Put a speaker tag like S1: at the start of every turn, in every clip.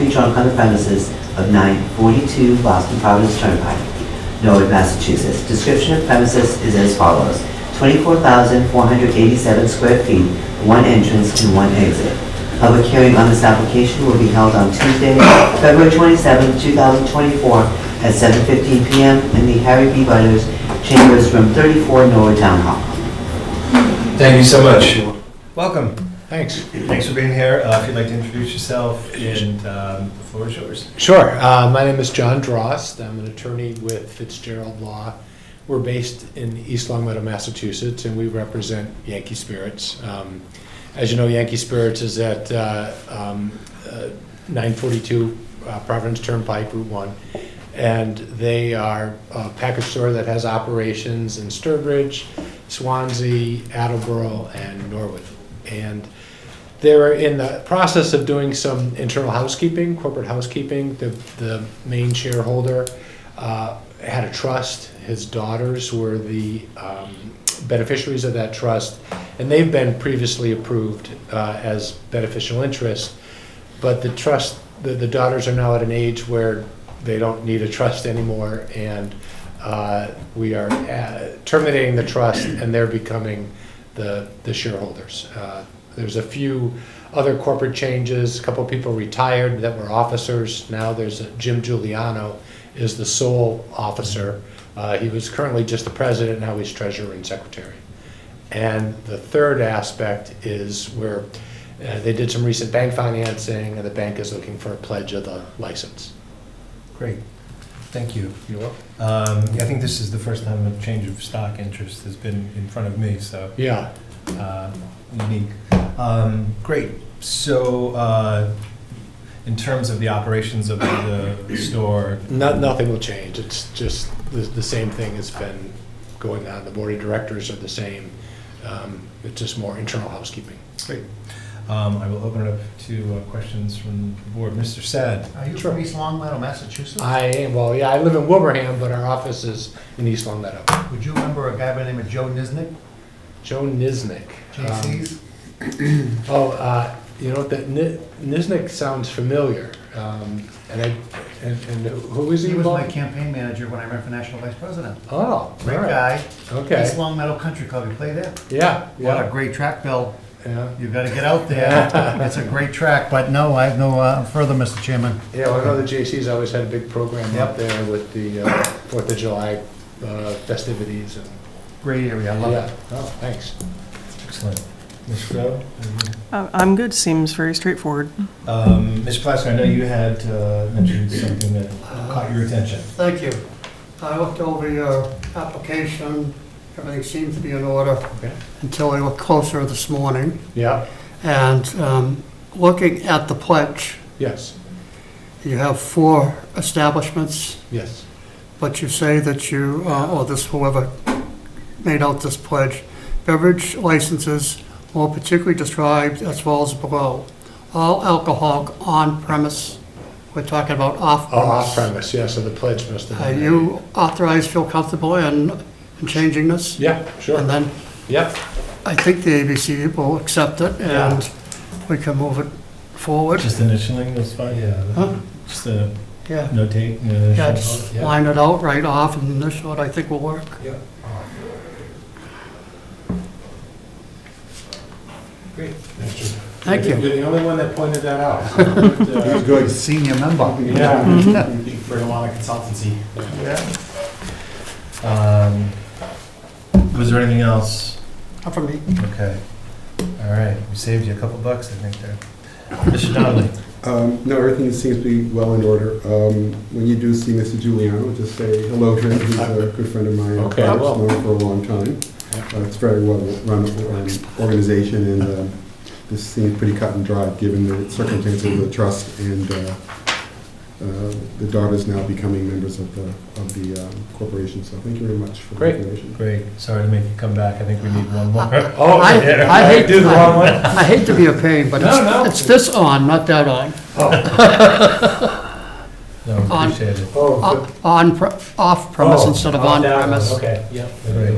S1: Feature on the premises of 942 Boston Providence Turnpike, Norwood, Massachusetts. Description of premises is as follows. 24,487 square feet, one entrance and one exit. Public hearing on this application will be held on Tuesday, February 27, 2024, at 7:15 PM in the Harry B. Butters Chambers, Room 34, Norwood Town Hall.
S2: Thank you so much. Welcome.
S3: Thanks.
S2: Thanks for being here. Uh, If you'd like to introduce yourself and um, the floor is yours.
S3: Sure. Uh, My name is John Drost. I'm an attorney with Fitzgerald Law. We're based in East Longmeadow, Massachusetts, and we represent Yankee Spirits. Um, As you know, Yankee Spirits is at uh, um, uh, 942 uh, Providence Turnpike, Route 1. And they are a package store that has operations in Sturbridge, Swansea, Attleboro, and Norwood. And They're in the process of doing some internal housekeeping, corporate housekeeping. The, the main shareholder uh, had a trust. His daughters were the um, beneficiaries of that trust, and they've been previously approved uh, as beneficial interest. But the trust, the, the daughters are now at an age where they don't need a trust anymore, and uh, we are uh, terminating the trust, and they're becoming the, the shareholders. Uh, There's a few other corporate changes, a couple people retired that were officers. Now there's a- Jim Giuliano is the sole officer. Uh, He was currently just the president, now he's treasurer and secretary. And the third aspect is where uh, they did some recent bank financing, and the bank is looking for a pledge of the license.
S2: Great. Thank you.
S3: You're welcome.
S2: Um, I think this is the first time a change of stock interest has been in front of me, so
S3: Yeah,
S2: uh, unique. Um, Great. So uh, in terms of the operations of the store,
S3: no- nothing will change, it's just the, the same thing has been going on, the board of directors are the same, Um, it's just more internal housekeeping.
S2: great. Um, I will open it up to uh, questions from the board. Mr. Sad?
S4: Are you
S3: Sure.
S4: from East Long Meadow, Massachusetts?
S3: I am, well, yeah, I live in Wilbraham, but our office is in East Long Meadow.
S4: Would you remember a guy by the name of Joe Niznik,
S3: Joe Niznik. um,
S4: JC's?
S3: Oh, uh, you know, that Ni- Niznik sounds familiar, Um, and I, and and who is he?
S4: He was my
S3: involved?
S4: campaign manager when I ran for national vice president.
S3: Oh, all
S4: Great
S3: right,
S4: guy. East
S3: okay,
S4: Long Meadow Country Club, you play there?
S3: yeah,
S4: What a
S3: yeah,
S4: great track, Bill.
S3: yeah.
S4: You've got to get out there. It's a great track, but no, I have no uh, further, Mr. Chairman.
S3: Yeah, well, I know the JC's always had a big program up
S4: Yep.
S3: there with the uh, Fourth of July uh, festivities and.
S4: Great area, I love
S3: Yeah.
S4: it.
S3: Oh, thanks.
S2: Excellent. Ms. Rowe?
S5: Uh, I'm good, seems very straightforward.
S2: Um, Mr. Plasko, I know you had uh, mentioned something that caught your attention.
S6: Thank you. I looked over your application, everything seems to be in order
S3: Okay.
S6: until I looked closer this morning.
S3: Yeah,
S6: And um, looking at the pledge,
S3: yes,
S6: you have four establishments,
S3: yes,
S6: but you say that you, uh, or this whoever made out this pledge, beverage licenses more particularly described as follows below. All alcohol on premise, we're talking about off
S3: Oh, off
S6: premise.
S3: premise, yeah, so the pledge must have.
S6: Are
S3: been-
S6: Uh, you authorized, feel comfortable in in changing this?
S3: Yeah,
S6: And
S3: sure,
S6: then
S3: yeah,
S6: I think the ABC will accept it and we can move it forward.
S2: Just initialing was fine?
S6: Huh?
S2: Yeah. Just a
S6: Yeah,
S2: notate? uh,
S6: yeah, just
S2: yeah.
S6: line it out right off and this one I think will work.
S2: Great.
S6: Thank you.
S3: You're the only one that pointed that out.
S4: Good. Senior member.
S3: Yeah.
S6: Mm-hmm.
S2: Bring along a consultancy. Um, Was there anything else?
S6: Not for me.
S2: Okay. All right, we saved you a couple bucks, I think, there. Mr. Donnelly?
S7: Um, No, everything seems to be well in order. Um, When you do see Mr. Giuliano, just say hello to him. He's a good friend of mine.
S3: Okay, I
S7: I've
S3: will.
S7: known him for a long time. Uh, It's a very well-run um, organization, and uh, this seems pretty cut and dry, given the circumstances of the trust and uh, uh, the daughters now becoming members of the of the um, corporation. So thank you very much for the
S3: Great.
S7: information.
S2: Great, sorry to make you come back, I think we need one more.
S3: Oh,
S6: I-
S3: yeah.
S6: I hate-
S3: Do the wrong one?
S6: I hate to be a pain, but
S3: No, no.
S6: it's, it's this on, not that on.
S2: No, appreciate it.
S3: Oh,
S6: O- On, pre- off premise
S3: Oh,
S6: instead of
S3: oh,
S6: on
S3: that one,
S6: premise.
S3: Okay, yeah.
S2: Great.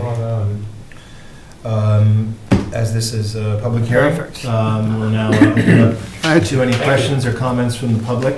S2: Um, As this is a public hearing,
S6: Perfect.
S2: um, we'll now open up
S6: Thank you.
S2: to any questions or comments from the public.